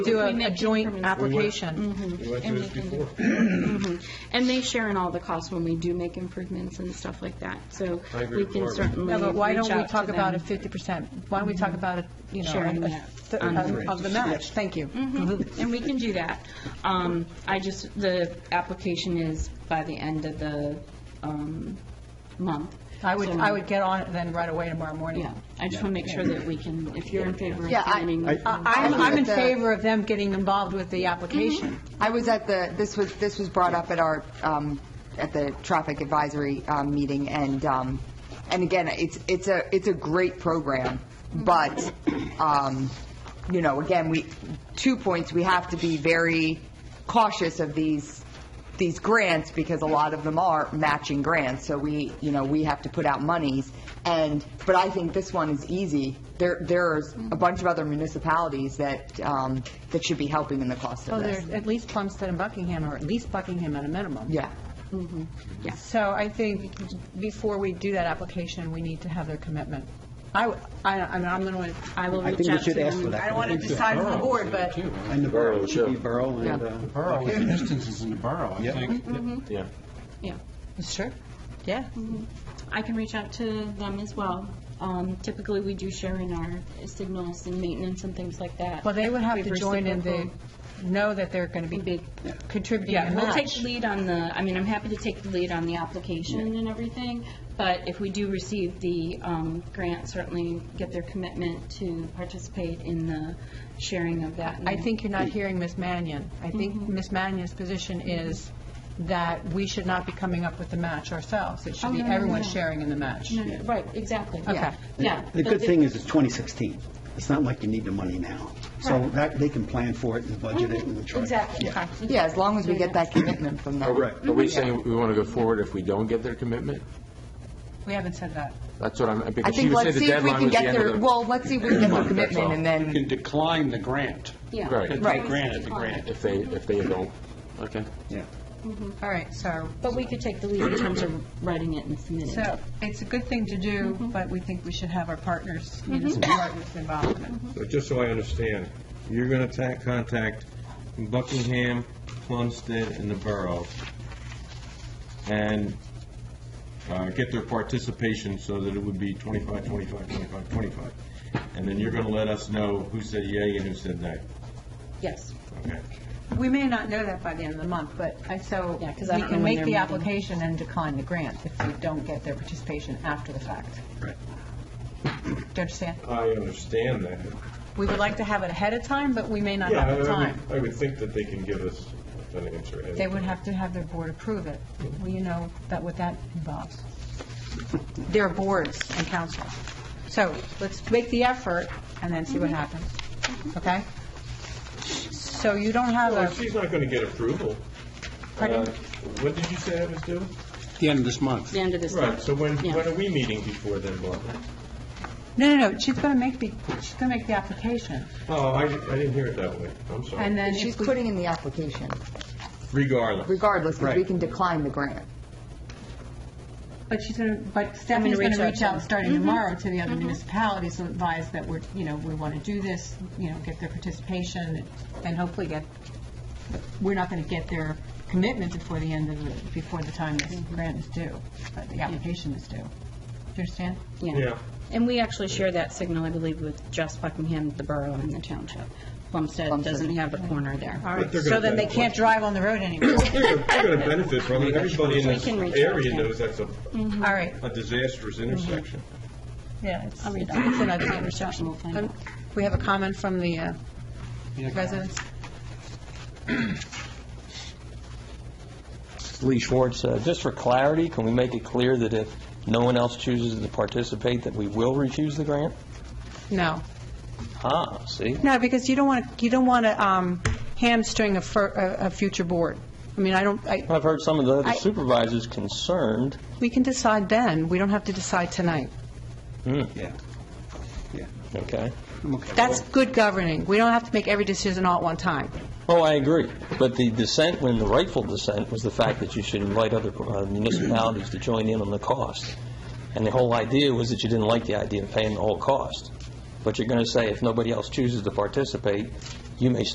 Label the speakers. Speaker 1: do
Speaker 2: We
Speaker 1: a-
Speaker 2: make
Speaker 1: a joint
Speaker 2: determinations.
Speaker 1: application. Mm-hmm.
Speaker 2: Mhm.
Speaker 3: We went
Speaker 2: And
Speaker 3: through this
Speaker 2: we can do-
Speaker 3: before.
Speaker 2: Mhm. And they share in all the costs when we do make improvements and stuff like that, so
Speaker 3: I agree
Speaker 2: we
Speaker 3: with
Speaker 2: can
Speaker 3: Barbara.
Speaker 2: certainly
Speaker 1: Yeah,
Speaker 2: reach out to
Speaker 1: but
Speaker 2: them.
Speaker 1: why don't we talk about a 50%? Why don't we talk about, a you know,
Speaker 2: Sharing
Speaker 1: a- a
Speaker 2: that
Speaker 1: thi-
Speaker 2: on
Speaker 1: of of the Mm-hmm. match? Thank you.
Speaker 2: Mhm, And we can do that. Um, I just, the application is by the end of the um, month.
Speaker 1: I would,
Speaker 2: So,
Speaker 1: I would get on it then right away tomorrow morning.
Speaker 2: Yeah, I just want to make sure that we can, if you're in favor of uh,
Speaker 4: Yeah, I-
Speaker 2: getting...
Speaker 1: I- I'm,
Speaker 4: I
Speaker 1: I'm in
Speaker 4: think that-
Speaker 1: favor of them getting involved with the application.
Speaker 4: I was at the, this was, this was brought up at our, um, at the traffic advisory um, meeting, and, um, and again, it's, it's a, it's a great program, but, um, you know, again, we, two points, we have to be very cautious of these, these grants, because a lot of them are matching grants, so we, you know, we have to put out monies, and, but I think this one is easy. There, there's a bunch of other municipalities that, um, that should be helping in the cost
Speaker 1: So
Speaker 4: of this.
Speaker 1: Oh, there's at least Plumstead and Buckingham, or at least Buckingham at a minimum.
Speaker 4: Yeah.
Speaker 1: So I think before we do that application, we need to have their commitment. I, w- I, I mean, I'm going to,
Speaker 2: I will
Speaker 5: I
Speaker 2: reach
Speaker 5: think we
Speaker 2: out to
Speaker 5: should ask for
Speaker 2: them.
Speaker 5: that.
Speaker 6: I don't want to decide for the
Speaker 5: Oh,
Speaker 6: board, but
Speaker 5: And the borough, it should be borough and, uh,
Speaker 3: Borough, the distance is in the borough, I think.
Speaker 2: Mm-hmm.
Speaker 7: Yeah.
Speaker 2: Yeah,
Speaker 1: sure, yeah.
Speaker 2: I can reach out to them as well. Um, Typically, we do share in our signals and maintenance and things like that.
Speaker 1: Well, they would have to
Speaker 2: We've
Speaker 1: join in the,
Speaker 2: reciprocal.
Speaker 1: know that they're going to be
Speaker 2: Big-
Speaker 1: contributing
Speaker 2: Yeah,
Speaker 1: a
Speaker 2: and we'll take
Speaker 1: match.
Speaker 2: lead on the, I mean, I'm happy to take the lead on the application and everything, but if we do receive the um, grant, certainly get their commitment to participate in the sharing of that.
Speaker 1: I think you're not hearing Ms. Mannion. I think
Speaker 2: Mm-hmm.
Speaker 1: Ms. Mannion's position is that we should not be coming up with the match ourselves. It
Speaker 2: Oh,
Speaker 1: should be
Speaker 2: no, no, no,
Speaker 1: everyone
Speaker 2: no.
Speaker 1: sharing in the match.
Speaker 2: No, no, Right, exactly.
Speaker 1: Okay.
Speaker 2: Yeah.
Speaker 5: the
Speaker 2: but
Speaker 5: good
Speaker 2: the-
Speaker 5: thing is it's 2016. It's not like you need the money now. So
Speaker 2: Right.
Speaker 5: that, they can plan for it and budget it and try.
Speaker 2: Exactly.
Speaker 5: Yeah.
Speaker 4: Yeah, as long as we get that commitment from them.
Speaker 7: Are
Speaker 4: Mm-hmm.
Speaker 7: we saying we want to go forward if we don't get their commitment?
Speaker 1: We haven't said that.
Speaker 7: That's what I'm,
Speaker 4: I
Speaker 7: because she
Speaker 4: think
Speaker 7: would say
Speaker 4: let's
Speaker 7: the
Speaker 4: see if we
Speaker 7: deadline
Speaker 4: can
Speaker 7: was the
Speaker 4: get
Speaker 7: end
Speaker 4: their,
Speaker 7: of the...
Speaker 4: well, let's see if we can get their
Speaker 7: month, that's
Speaker 4: commitment,
Speaker 7: all.
Speaker 4: and then,
Speaker 3: You can decline the grant.
Speaker 2: Yeah.
Speaker 7: Right.
Speaker 3: It's
Speaker 4: Right.
Speaker 3: a grant, it's a grant.
Speaker 7: If they, if they don't, okay.
Speaker 5: Yeah.
Speaker 1: All right, so,
Speaker 2: But we could take the lead in terms of writing it and submitting it.
Speaker 1: so it's a good thing to do,
Speaker 2: Mm-hmm.
Speaker 1: but we think we should have our partners, municipal partners
Speaker 2: Mm-hmm.
Speaker 1: involvement.
Speaker 3: So just so I understand, you're going to contact Buckingham, Plumstead, and the borough, and uh, get their participation so that it would be 25, 25, 25, 25. And then you're going to let us know who said yay and who said nay.
Speaker 2: Yes.
Speaker 3: Okay.
Speaker 1: We may not know that by the end of the month, but I, so
Speaker 2: Yeah,
Speaker 1: we
Speaker 2: 'cause I don't know
Speaker 1: can
Speaker 2: when
Speaker 1: make
Speaker 2: they're
Speaker 1: the
Speaker 2: meeting.
Speaker 1: application and decline the grant if we don't get their participation after the fact.
Speaker 5: Right.
Speaker 1: Do you understand?
Speaker 3: I understand that.
Speaker 1: We would like to have it ahead of time, but we may not
Speaker 3: Yeah, I
Speaker 1: have the
Speaker 3: would-
Speaker 1: time.
Speaker 3: I would think that they can give us an answer.
Speaker 1: They would have to have their board approve it. Well, you know that what that involves. Their boards and council. So let's make the effort and then see
Speaker 2: Mm-hmm.
Speaker 1: what happens. Okay? So you don't have
Speaker 3: Well,
Speaker 1: a,
Speaker 3: she's not going to get approval.
Speaker 1: Pardon?
Speaker 3: Uh, When did you say that was due?
Speaker 5: The end of this month.
Speaker 2: The end of this
Speaker 3: Right,
Speaker 2: month.
Speaker 3: so when,
Speaker 2: Yeah.
Speaker 3: when are we meeting before then, Barbara?
Speaker 1: no, no, no, she's going to make the, she's going to make the application.
Speaker 3: Oh, I, I didn't hear it that way, I'm
Speaker 1: And
Speaker 3: sorry.
Speaker 1: then
Speaker 4: she's
Speaker 1: if we,
Speaker 4: putting in the application,
Speaker 3: Regardless.
Speaker 4: regardless, because we
Speaker 3: Right.
Speaker 4: can decline the grant.
Speaker 1: but she's going to, but Stephanie's going to Mm-hmm. reach
Speaker 2: to
Speaker 1: out starting tomorrow to the other municipalities to advise that we're, you know, we want to do this, you know, get their participation and hopefully get, we're not going to get their commitment before the end of the, before the time this grant is due, uh, the application is due. Do you understand?
Speaker 3: Yeah.
Speaker 2: And we actually share that signal, I believe, with just Buckingham, the borough, and the township. Plumstead doesn't have a corner there.
Speaker 1: All
Speaker 3: But
Speaker 1: right,
Speaker 3: they're gonna
Speaker 1: so then they
Speaker 3: benefit.
Speaker 1: can't drive on the road anymore.
Speaker 3: They're going to benefit from it, everybody in
Speaker 2: We
Speaker 3: this
Speaker 2: can reach out,
Speaker 3: area
Speaker 2: yeah.
Speaker 3: knows that's a,
Speaker 1: All right,
Speaker 3: a disastrous intersection.
Speaker 1: yeah. it's-
Speaker 2: I'll read
Speaker 1: it's
Speaker 2: that.
Speaker 1: another
Speaker 2: I'll reach out and we'll find
Speaker 1: Um,
Speaker 2: out.
Speaker 1: We have a comment from the uh, residents.
Speaker 8: Lee Schwartz, uh, just for clarity, can we make it clear that if no one else chooses to participate, that we will refuse the grant?
Speaker 1: No.
Speaker 8: Ah, see?
Speaker 1: No, because you don't want to, you don't want to hamstring a, fir- a a future board. I mean, I don't, I,
Speaker 8: I've heard some of the
Speaker 1: I-
Speaker 8: other supervisors concerned
Speaker 1: we can decide then, we don't have to decide tonight.
Speaker 5: Yeah. Yeah.
Speaker 8: Okay.
Speaker 5: I'm okay.
Speaker 1: That's good governing, we don't have to make every decision all at one time.
Speaker 8: Oh, I agree. But the dissent, when the rightful dissent, was the fact that you should invite other uh, municipalities to join in on the cost. And the whole idea was that you didn't like the idea of paying the whole cost. But you're going to say, if nobody else chooses to participate, you may